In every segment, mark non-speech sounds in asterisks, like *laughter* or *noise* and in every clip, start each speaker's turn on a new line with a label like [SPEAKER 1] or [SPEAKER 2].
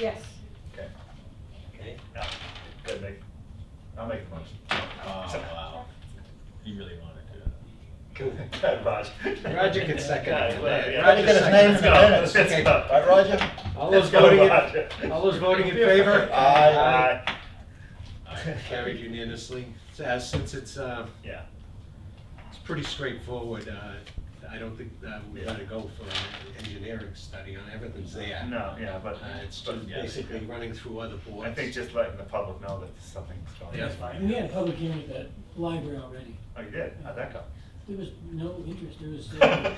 [SPEAKER 1] Yes.
[SPEAKER 2] Okay,
[SPEAKER 3] Okay,
[SPEAKER 4] Yeah,
[SPEAKER 2] good, make, I'll make the motion.
[SPEAKER 4] Oh, wow.
[SPEAKER 2] You really wanted to.
[SPEAKER 3] cool.
[SPEAKER 4] Good, Roger.
[SPEAKER 3] Roger can second it.
[SPEAKER 4] Yeah, well, yeah.
[SPEAKER 3] Roger can
[SPEAKER 4] Let's
[SPEAKER 3] amend the
[SPEAKER 4] go,
[SPEAKER 3] minutes.
[SPEAKER 4] let's
[SPEAKER 3] Okay.
[SPEAKER 4] go.
[SPEAKER 3] All
[SPEAKER 2] Right, Roger?
[SPEAKER 3] All
[SPEAKER 4] Let's
[SPEAKER 3] those
[SPEAKER 4] go,
[SPEAKER 3] voting,
[SPEAKER 4] Roger.
[SPEAKER 3] in- all those
[SPEAKER 4] *laughs*
[SPEAKER 3] voting in favor?
[SPEAKER 2] Aye.
[SPEAKER 4] Aye.
[SPEAKER 3] Carried unanimously. So, uh, Since it's, uh,
[SPEAKER 4] Yeah,
[SPEAKER 3] it's pretty straightforward, uh, I don't think uh, we ought to go for an engineering study on everything's there.
[SPEAKER 4] no, yeah,
[SPEAKER 3] Uh,
[SPEAKER 4] but.
[SPEAKER 3] It's
[SPEAKER 4] but,
[SPEAKER 3] just
[SPEAKER 4] yeah,
[SPEAKER 3] basically running through other boards.
[SPEAKER 4] I think just letting the public know that something's going
[SPEAKER 3] Yeah.
[SPEAKER 4] on.
[SPEAKER 5] We had a public hearing at the library already.
[SPEAKER 4] Oh, you did? How'd that go?
[SPEAKER 5] There was no interest, there was,
[SPEAKER 3] *laughs*
[SPEAKER 5] uh,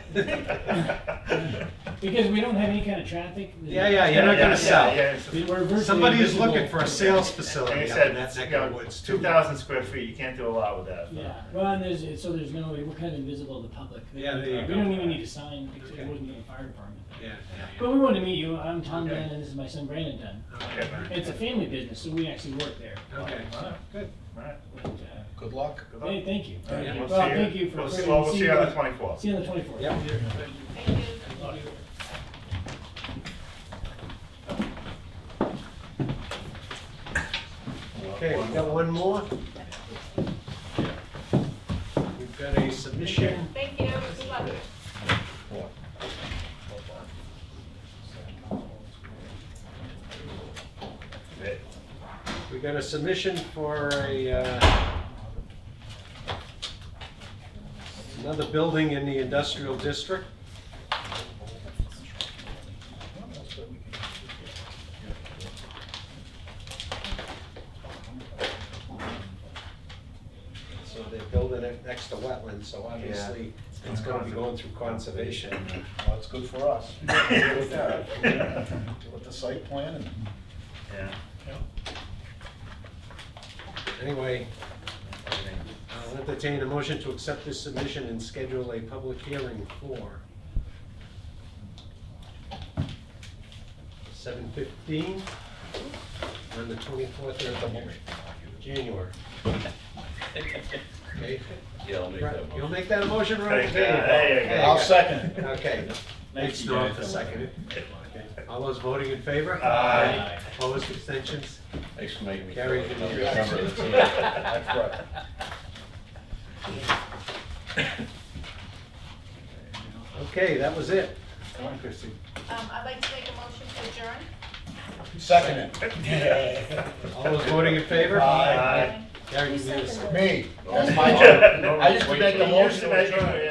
[SPEAKER 5] because we don't have any kind of traffic.
[SPEAKER 3] Yeah, yeah, you're not
[SPEAKER 4] Yeah, yeah,
[SPEAKER 3] gonna sell.
[SPEAKER 4] yeah, it's just-
[SPEAKER 5] We were virtually
[SPEAKER 3] Somebody is looking
[SPEAKER 5] invisible.
[SPEAKER 3] for a sales
[SPEAKER 4] And
[SPEAKER 3] facility
[SPEAKER 4] he
[SPEAKER 3] up in
[SPEAKER 4] said,
[SPEAKER 3] that
[SPEAKER 4] you
[SPEAKER 3] neck of the
[SPEAKER 4] know,
[SPEAKER 3] woods too.
[SPEAKER 4] two thousand square feet, you can't do a lot with that.
[SPEAKER 5] Yeah, well, and there's, it's- so there's no, we're kind of invisible to the public.
[SPEAKER 3] Yeah, there you
[SPEAKER 5] We
[SPEAKER 3] go.
[SPEAKER 5] don't even need a sign, except
[SPEAKER 3] Okay.
[SPEAKER 5] it wouldn't be the fire department.
[SPEAKER 3] Yeah,
[SPEAKER 5] But
[SPEAKER 3] yeah,
[SPEAKER 5] we wanted to meet you, I'm Tom
[SPEAKER 4] Okay.
[SPEAKER 5] Dunn, and this is my son Brandon Dunn.
[SPEAKER 3] yeah. Okay,
[SPEAKER 5] It's a family business, so we actually work there.
[SPEAKER 3] Okay, good.
[SPEAKER 4] Alright.
[SPEAKER 5] But, uh,
[SPEAKER 2] Good luck.
[SPEAKER 4] Good luck.
[SPEAKER 5] Hey, thank you.
[SPEAKER 4] All right,
[SPEAKER 3] Yeah.
[SPEAKER 4] we'll
[SPEAKER 5] Well,
[SPEAKER 4] see
[SPEAKER 5] thank you for.
[SPEAKER 4] We'll see,
[SPEAKER 5] bringing-
[SPEAKER 4] well, we'll see you on the
[SPEAKER 5] See
[SPEAKER 4] twenty-fourth.
[SPEAKER 5] you on the twenty-fourth.
[SPEAKER 3] Yeah. Okay, we got one more. We've got a submission.
[SPEAKER 1] Thank you, good luck.
[SPEAKER 3] We got a submission for a, uh, another building in the industrial district. So they're building it next to wetlands, so obviously it's gonna be going through conservation.
[SPEAKER 2] Well, it's good for us. Deal with that. Deal with the site plan and.
[SPEAKER 4] Yeah.
[SPEAKER 3] Anyway, I'll entertain a motion to accept this submission and schedule a public hearing for seven fifteen on the twenty-fourth of January. Okay,
[SPEAKER 6] Yeah, I'll make that
[SPEAKER 3] You'll
[SPEAKER 6] motion.
[SPEAKER 3] make that a motion, Ron?
[SPEAKER 4] Thank you. There you go.
[SPEAKER 2] I'll second.
[SPEAKER 3] Okay. Thanks, Norm, for seconding. All those voting in favor?
[SPEAKER 4] Aye.
[SPEAKER 3] Opposed, extensions?
[SPEAKER 6] *laughs* Thanks for making me.
[SPEAKER 3] Gary,
[SPEAKER 6] feel like
[SPEAKER 3] did you-
[SPEAKER 6] I'm a member of the team.
[SPEAKER 2] That's right.
[SPEAKER 3] Okay, that was it.
[SPEAKER 4] Come on, Christie.
[SPEAKER 1] Um, I'd like to make a motion to adjourn.
[SPEAKER 2] Second it.
[SPEAKER 3] All those voting in favor?
[SPEAKER 2] Aye.
[SPEAKER 3] Gary, you need
[SPEAKER 4] *laughs*
[SPEAKER 3] a-
[SPEAKER 2] Me, that's my job. I used to make the motion.
[SPEAKER 4] You used to make it,